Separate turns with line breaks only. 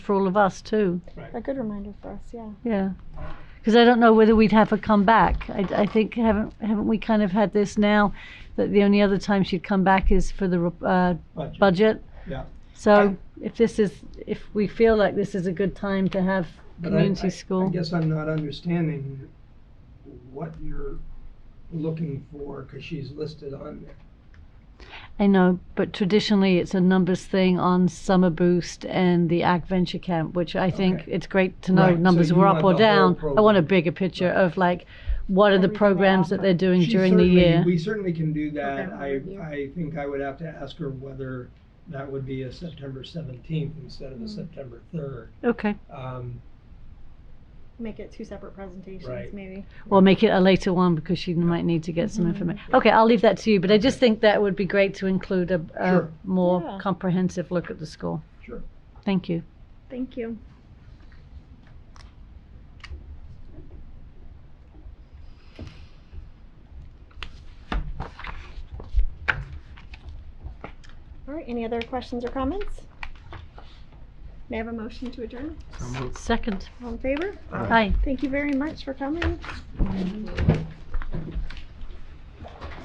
for all of us too.
Right.
A good reminder for us, yeah.
Yeah, because I don't know whether we'd have her come back. I, I think haven't haven't we kind of had this now that the only other time she'd come back is for the re- uh,
Budget.
budget.
Yeah.
So if this is if we feel like this is a good time to have
But I-
community
I-
school,
I guess I'm not understanding what you're looking for, because she's listed on there.
I know, but traditionally it's a numbers thing on Summer Boost and the Ag Venture Camp, which I think
Okay.
it's great to know
Right, so
numbers
you
were up
want
or
the whole
down. I want a
program.
bigger picture of like what are the
Everything they
programs that
offer.
they're doing
She
during the
certainly-
year.
We certainly can do that.
Program
I,
review.
I think I would have to ask her whether that would be a September seventeenth instead of a September third.
okay.
Um,
Make it two separate presentations,
Right.
maybe.
Or make it a later one because she might need to get some information. Okay, I'll leave that to you, but I just think that would be great to include a, a
Sure.
more
Yeah.
comprehensive look at the school.
sure.
Thank you.
Thank you. All right, any other questions or comments? May I have a motion to adjourn?
Mm-hmm.
Second.
All in favor?
Hi.
Thank you very much for coming.